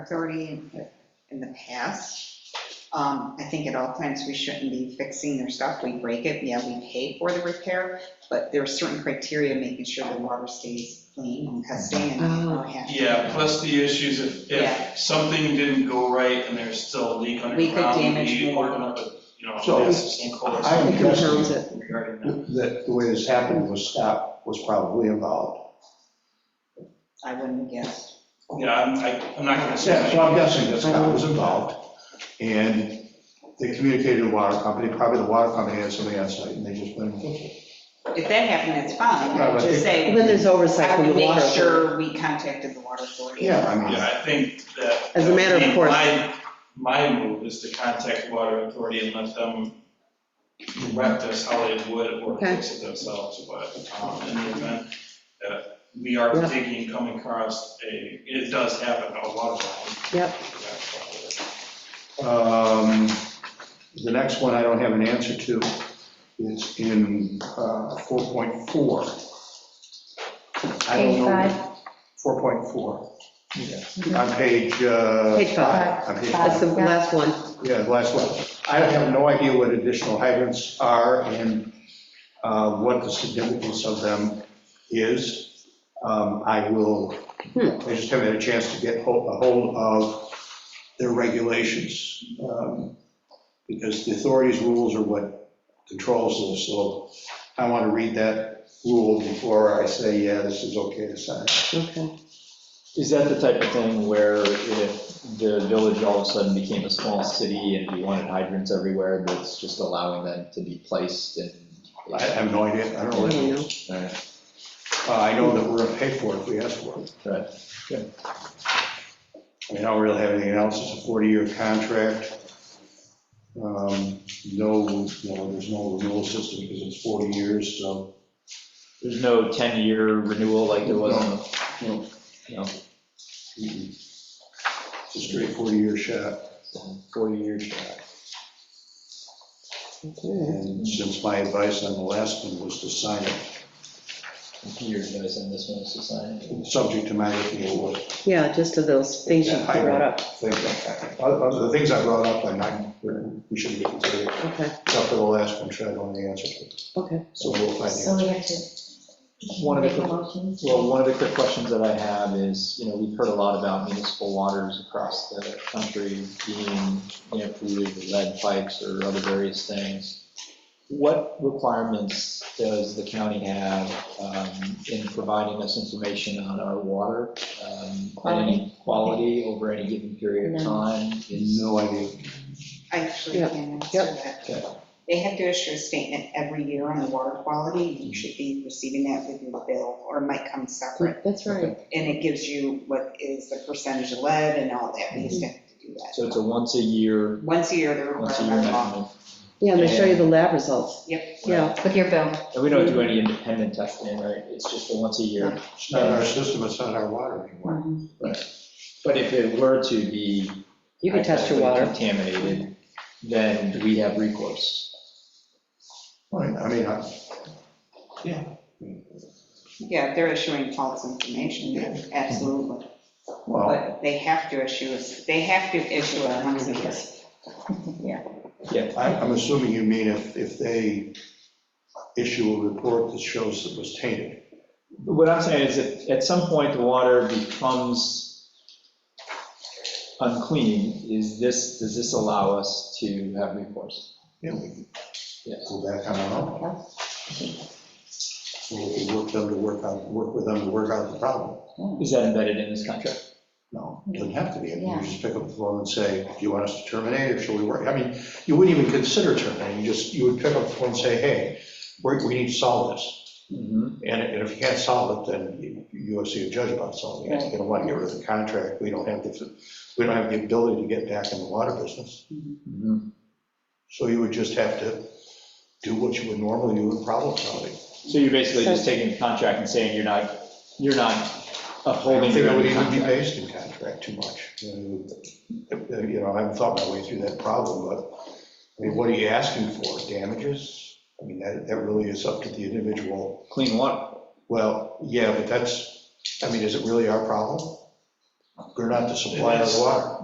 authority in- in the past. Um, I think at all times we shouldn't be fixing their stuff. We break it, yeah, we pay for the repair, but there are certain criteria, making sure the water stays clean and testing and Oh. all that. Yeah, plus the issues if, Yeah. if something didn't go right and there's still a leak We underground. could damage we more. open up a, You know, So, a massive sinkhole or I- something I'm guessing regarding that. that the way this happened was Scott was probably involved. I wouldn't guess. Yeah, I'm, I- I'm not gonna Yeah, so say. I'm guessing that Scott was involved, and they communicated to the water company, probably the water company had somebody on site, and they just went and fixed it. If that happened, it's fine. I would just say, When there's oversight I from would the make water. sure we contacted the water authority. Yeah, I mean, Yeah, I think that. As a matter of I mean, course. My, my move is to contact water authority and let them direct us how they would or Okay. fix it themselves, but um, in the event that we are Yeah. digging, coming across a, it does happen, a water line. Yep. um, the next one I don't have an answer to, it's in uh, 4.4. I don't know- Page five. 4.4. Yeah. On page, uh, Page five, on page five. Five. that's the Yeah. last one. Yeah, the last one. I have no idea what additional hydrants are and uh, what the significance of them is. Um, I will, I just haven't had a chance to get ho- a hold of their regulations. um, Because the authority's rules are what controls this, so I want to read that rule before I say, yeah, this is okay to sign. Okay. Is that the type of thing where if the village all of a sudden became a small city and we wanted hydrants everywhere, that's just allowing them to be placed and? I have no idea, I don't I know. what Oh, it don't is. know. Alright, Uh, I know that we're going to pay for it if we ask for it. Right, I mean, I don't really have anything else, it's a 40-year contract. Um, No, no, there's no renewal system because it's 40 years, so. There's no 10-year renewal like there was? No, No. mm-mm. It's a straight 40-year shot, Four-year shot. Okay. and since my advice on the last one was to sign it, Your advice on this one is to sign it? subject to my approval. Yeah, just to those things you Yeah, I- brought up, Think- Other other- the things I brought up, I'm not, we shouldn't be considering, okay, except for the last one, which I don't know the answer to, okay. so we'll find the So answer. we have to One of the- make a motion. Well, one of the quick questions that I have is, you know, we've heard a lot about municipal waters across the country being, you know, polluted with lead pipes or other various things. What requirements does the county have um, in providing us information on our water? um, and any Quality over any given period of None. time? Is- No idea. I actually Yep, can answer yep. that. Okay. They have to issue a statement every year on the water quality, and you should be receiving that with your bill, or it might come separate. That's right. And it gives you what is the percentage of lead and all that, we used to have to do that. So it's a once a year, Once a year, they're once a year required by law. measurement? Yeah, and they show you the lab results. Yep. Yeah, With your bill. And we don't do any independent testing, right? It's just a once a year. It's not our system, it's not our water anymore. But if it were to be you can test your water. Contaminated, then we have recourse. Right, I mean, I- Yeah, they're issuing false information, yeah, absolutely. well, But they have to issue, a- they have to issue a once a year. I- I'm assuming you mean if, if they issue a report that shows it was tainted. What I'm saying is if at some point the water becomes unclean, is this, does this allow us to have recourse? Yeah, we can Yeah. go back on our own. We can work them to work out, work with them to work out the problem. Is that embedded in this contract? No, it doesn't have to be. I mean, You Yeah. just pick up the phone and say, do you want us to terminate or shall we work? I mean, you wouldn't even consider terminating, you just, you would pick up the phone and say, hey, we we need to solve this. Mm-hmm. And and if you can't solve it, then you- you have to see a judge about solving it. You don't want to get rid of the contract. We don't have the, we don't have the ability to get back in the water business. Mm-hmm. So you would just have to do what you would normally do in problem solving. So you're basically just taking the contract and saying you're not, you're not I don't upholding think your it own would even be contract. based in contract too much. You know, You know, I haven't thought my way through that problem, but, I mean, what are you asking for? Damages? I mean, that, that really is up to the individual. Clean water. Well, yeah, but that's, I mean, is it really our problem? They're not the supplier of water.